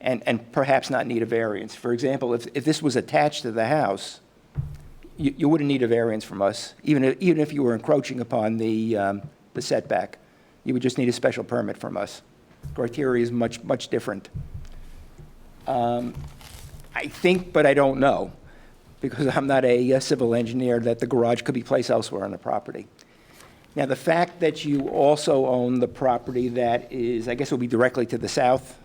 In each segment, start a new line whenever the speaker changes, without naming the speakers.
and, and perhaps not need a variance. For example, if, if this was attached to the house, you, you wouldn't need a variance from us, even if, even if you were encroaching upon the, um, the setback. You would just need a special permit from us. Criteria is much, much different. Um, I think, but I don't know, because I'm not a uh, civil engineer, that the garage could be placed elsewhere on the property. Now, the fact that you also own the property that is, I guess it will be directly to the south,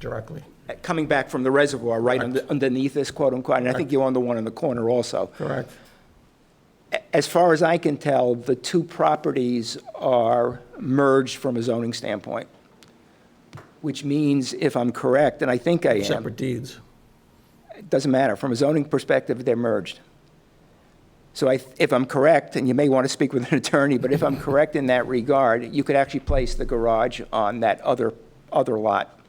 directly.
uh, coming back from the reservoir, right under- underneath this, quote unquote, and I think you own the one in the corner also.
Correct.
A- As far as I can tell, the two properties are merged from a zoning standpoint, which means, if I'm correct, and I think I am.
Separate deeds.
It doesn't matter. From a zoning perspective, they're merged. So I, if I'm correct, and you may want to speak with an attorney, but if I'm correct in that regard, you could actually place the garage on that other, other lot,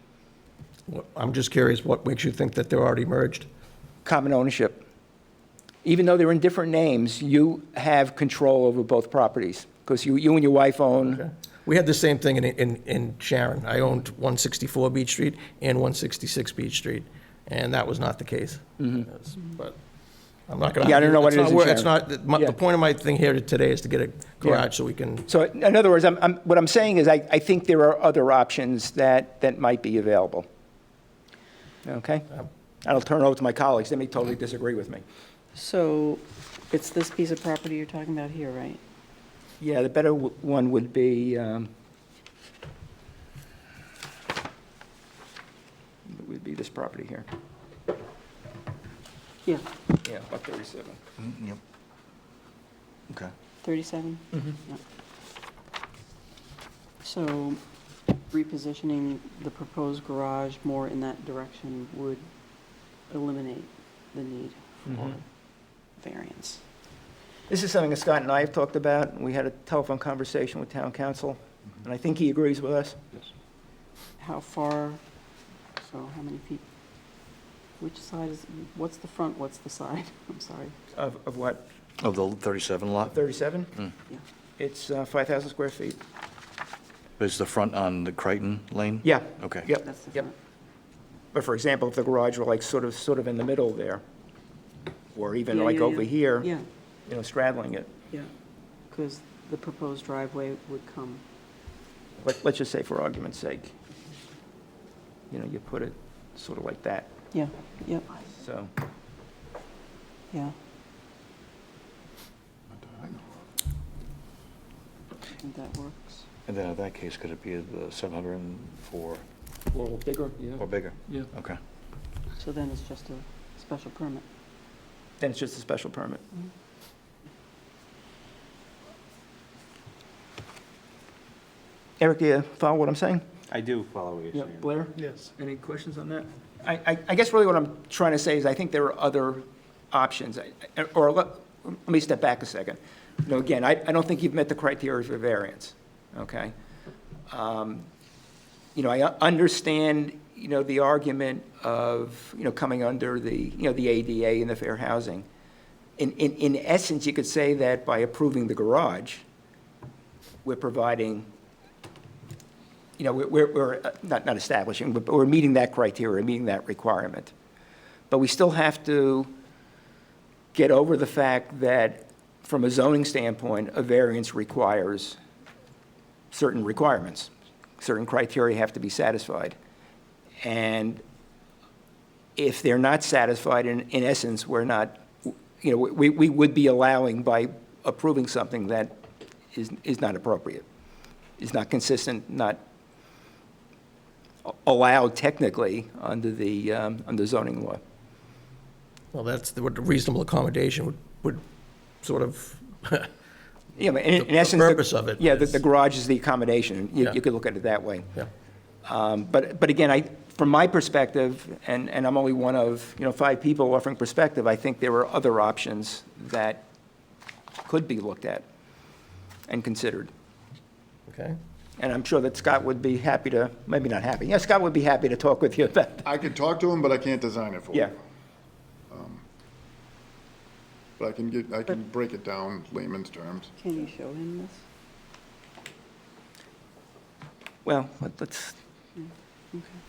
What- I'm just curious, what makes you think that they're already merged?
common ownership. Even though they're in different names, you have control over both properties, because you, you and your wife own,
We had the same thing in, in, in Sharon. I owned 164 Beach Street and 166 Beach Street, and that was not the case. Yes, But I'm not gonna.
Mm-hmm. Yeah, I don't know what it
It's
is
not
in
wor- It's
Sharon.
not, the- my-
Yeah.
the point of my thing here today is to get a garage so we can,
so in in other words, I'm, I'm, what I'm saying is, I, I think there are other options that, that might be available. Okay?
um,
I'll turn it over to my colleagues, they may totally disagree with me.
So it's this piece of property you're talking about here, right?
Yeah, the better w- one would be, um, would be this property here.
Yeah,
Yeah, about 37.
Mm, Yep. Okay.
37? Yeah. So repositioning the proposed garage more in that direction would eliminate the need for variance.
Mm-hmm. This is something that Scott and I have talked about, and we had a telephone conversation with town council, and I think he agrees with us.
How far, so how many feet? Which side is, what's the front, what's the side? I'm sorry.
Of, of what,
Of the 37 lot?
37?
Mm.
Yeah.
It's uh, 5,000 square feet.
Is the front on the Crichton Lane?
Yeah.
Okay.
Yep,
That's the
yep.
front.
But for example, if the garage were like sort of, sort of in the middle there, or even
Yeah,
like
yeah,
over
yeah.
here, you
Yeah.
know, straddling it,
Yeah, because the proposed driveway would come,
let, let's just say for argument's sake, you know, you put it sort of like that,
yeah, yep,
so.
yeah. And that works.
And then in that case, could it be the 704
Or bigger, yeah.
or bigger?
Yeah.
Okay.
So then it's just a special permit.
Then it's just a special permit. Eric, do you follow what I'm saying?
I do follow what you're
Yeah,
saying.
Blair? Yes. Any questions on that? I, I, I guess really what I'm trying to say is I think there are other options, I- I- or let, let me step back a second. You know, again, I, I don't think you've met the criteria for variance, okay? Um, You know, I u- understand, you know, the argument of, you know, coming under the, you know, the ADA and the fair housing. In, in, in essence, you could say that by approving the garage, we're providing you know, we're- we're, we're uh, not, not establishing, but we're meeting that criteria, meeting that requirement. But we still have to get over the fact that, from a zoning standpoint, a variance requires certain requirements. Certain criteria have to be satisfied. And if they're not satisfied, in, in essence, we're not, you know, we, we would be allowing by approving something that is, is not appropriate, is not consistent, not allowed technically under the, um, under zoning law.
well, that's the- what the reasonable accommodation would, would sort of,
Yeah, but in,
The-
in
the
essence.
purpose of it
Yeah, the,
is-
the garage is the accommodation. You,
Yeah.
you could look at it that way.
yeah.
Um, But, but again, I, from my perspective, and, and I'm only one of, you know, five people offering perspective, I think there are other options that could be looked at and considered.
Okay?
And I'm sure that Scott would be happy to, maybe not happy, yeah, Scott would be happy to talk with you about, that.
I could talk to him, but I can't design it for him. Um,
yeah.
But I can get, I can break it down layman's terms.
Can you show him this?
Well, let- let's,
Okay.